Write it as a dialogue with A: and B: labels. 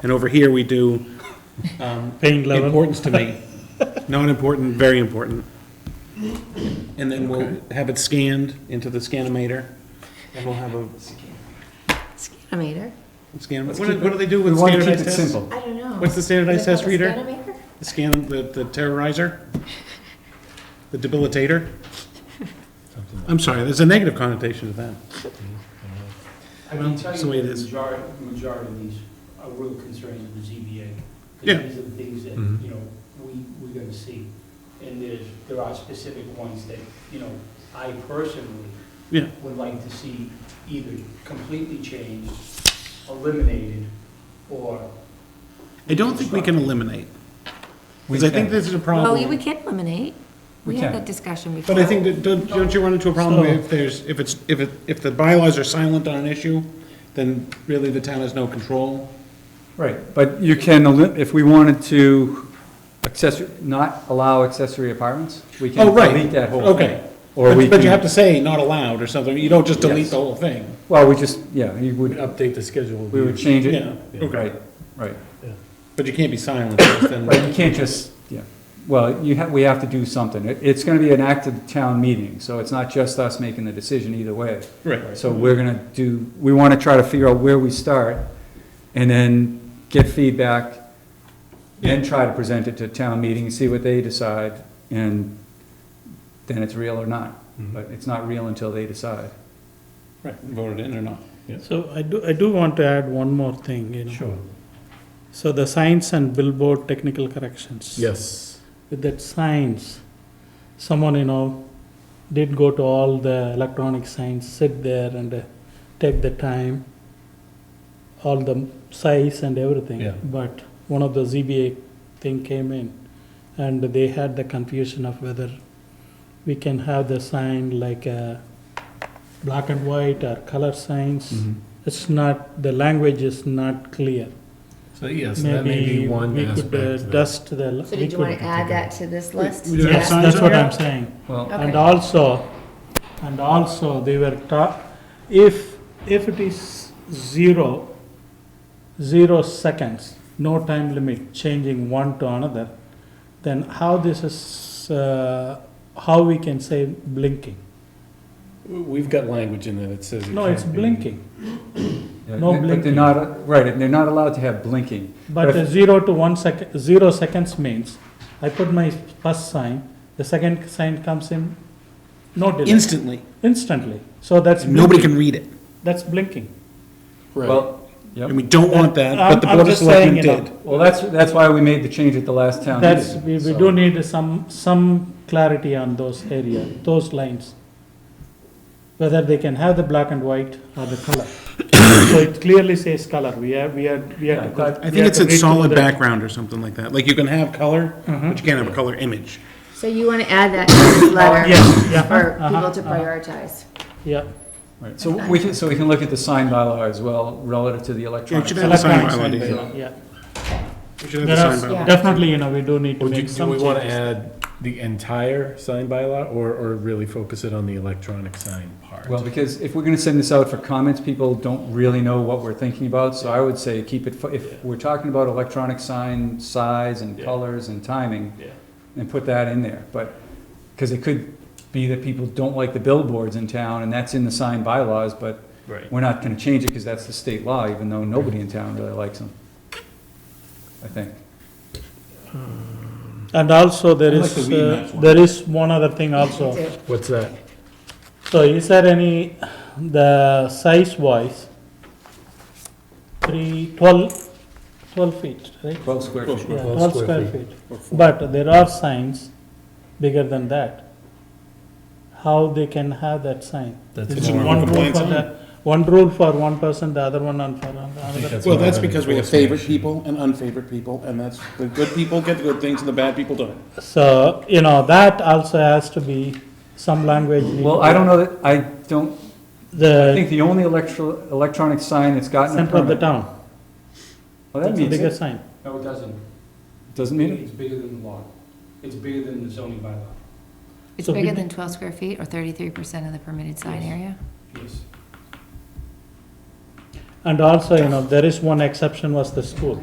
A: And over here, we do um,
B: Pain level.
A: importance to me. Not important, very important. And then we'll have it scanned into the scanometer, and we'll have a
C: Scanometer?
A: scan, what
B: Let's
A: do
B: keep
A: what do they do
B: We
A: with
B: want to keep
A: standardized
B: it
A: tests?
B: simple.
C: I don't know.
A: What's the standardized
C: Is it
A: test
C: called a
A: reader?
C: Scanometer?
A: The scan, the the terrorizer? The debilitator? I'm sorry, there's a negative connotation to that.
D: I can tell
A: it's the way
D: you
A: it
D: the
A: is.
D: majority, majority of these are real concerns of the ZBA. 'cause
A: Yeah. Mm-hmm.
D: These are the things that,
E: Mhm.
D: you know, we, we're gonna see. And there's, there are specific ones that, you know, I personally
A: Yeah.
D: would like to see either completely changed, eliminated, or,
A: I don't think we can eliminate, because I think this is a problem.
C: Well, Oh, you- we can eliminate. We
E: We
C: had
E: can.
C: that discussion before.
A: But I think that, don't, don't you run into a problem where
B: So-
A: if there's, if it's, if it, if the bylaws are silent on an issue, then really the town has no control?
E: Right, but you can, elim- if we wanted to accessory, not allow accessory apartments, we can
A: Oh, right.
E: delete that whole thing.
A: Okay.
E: Or we
A: But, but you have to
E: can,
A: say not allowed or something, you don't just delete
E: Yes.
A: the whole thing.
E: well, we just, yeah, you would,
B: Update the schedule.
E: we would change it.
A: Yeah, okay.
E: Right, right.
A: But you can't be silent, because
E: Right,
A: then,
E: you can't just, yeah, well, you have, we have to do something. It, it's gonna be an active town meeting, so it's not just us making the decision either way.
A: right.
E: So we're gonna do, we wanna try to figure out where we start, and then get feedback, then try to present it to town meeting, see what they decide, and then it's real or not.
B: Mm-hmm.
E: But it's not real until they decide.
A: Right, voted in or not.
B: So I do, I do want to add one more thing, you know.
E: Sure.
B: So the signs and billboard technical corrections.
F: Yes.
B: With that signs, someone, you know, did go to all the electronic signs, sit there and uh, take the time, all the size and everything.
F: Yeah.
B: But one of the ZBA thing came in and they had the confusion of whether we can have the sign like a black and white or color signs.
F: Mm-hmm.
B: It's not, the language is not clear.
F: So yes, that may
B: Maybe
F: be one
B: we could uh,
F: aspect. that-
B: dust the.
C: So did you want to add that to this list?
A: we do have
B: Yes,
A: signs
B: that's
A: on
B: what
A: there?
B: I'm saying.
E: Well,
C: Okay.
B: And also, and also they were taught, if, if it is zero, zero seconds, no time limit, changing one to another, then how this is, uh, how we can say blinking?
F: We've got language in there that says. it
B: No, it's
F: can't be.
B: blinking,
E: yeah,
B: No
E: but they're
B: blinking.
E: not, right, and they're not allowed to have blinking.
B: but uh, zero to one second, zero seconds means, I put my first sign, the second sign comes in, no delay.
A: Instantly,
B: instantly. So that's
A: nobody
B: blinking.
A: can read it,
B: That's blinking.
F: Right.
E: Well,
A: and
E: yep,
A: we don't want that,
B: I'm-
A: but the
B: I'm
A: Board of
B: just saying,
A: Selectmen
B: you know,
A: did.
E: well, that's, that's why we made the change at the last
A: Ah,
E: town meeting.
B: That's, we, we
F: so-
B: do need some, some clarity on those area, those lines. Whether they can have the black and white or the color. So it clearly says color, we have, we have, we have to.
E: Yeah, I- I
B: we
A: I
B: have
A: think it's
B: to
A: a
B: read through
A: solid
B: the-
A: background or something like that, like you can have color,
B: Mhm.
A: but you can't have a color image.
C: So you want to add that to
A: Oh,
C: this letter?
B: Yes, yeah.
C: For
B: uh-huh,
C: people to
B: uh-huh.
C: prioritize?
B: Yeah,
E: Right, so we can, so we can look at the sign bylaw as well, relative to the electronic.
A: should
E: sign.
A: have a sign
B: electronic
A: bylaw,
B: sign
A: do you?
B: bylaw, yeah.
A: We should have the
B: There
A: sign
C: yeah.
A: bylaw.
B: are, definitely, you know, we do need to
F: Would you,
B: make
F: do
B: some
F: we want to
B: changes.
F: add the entire sign bylaw or, or really focus it on the electronic sign part?
E: Well, because if we're gonna send this out for comments, people don't really know what we're thinking about, so I would say keep it, fo- if we're talking about electronic sign size and
F: Yeah.
E: colors and timing,
F: Yeah.
E: and put that in there, but, cause it could be that people don't like the billboards in town, and that's in the sign bylaws, but
F: Right.
E: we're not gonna change it, cause that's the state law, even though nobody in town really likes them. I think.
B: And also, there
A: I like
B: is,
A: the weed
B: uh,
A: match one.
B: there is one other thing also.
C: Too.
F: What's that?
B: So is there any, the size wise, three, twelve, twelve feet, right?
E: Twelve square feet.
B: Yeah,
F: Twelve
B: twelve
F: square
B: square
F: feet.
B: feet. But there are signs bigger than that. How they can have that sign?
F: That's
B: It's
F: more of a
B: one rule
A: compliance
B: for the, one rule for one person, the other one on for another.
F: That's
A: Well,
F: more
A: that's
F: of an
A: because we have
F: enforcement
A: favorite
F: issue.
A: people and unfavored people, and that's, the good people get the good things and the bad people don't.
B: So, you know, that also has to be some language. need-
E: Well, I don't know that, I don't, I think
B: The
E: the only electro, electronic sign that's gotten a
B: center of the
E: permit.
B: town,
E: Well, that
B: that's the
E: means
B: bigger
E: it.
B: sign.
D: no, it doesn't.
E: Doesn't mean it.
D: It's bigger than the law. It's bigger than the zoning bylaw,
C: It's
B: So we
C: bigger
B: do-
C: than 12 square feet or 33% of the permitted sign area?
D: yes.
B: And also, you know, there is one exception was the school.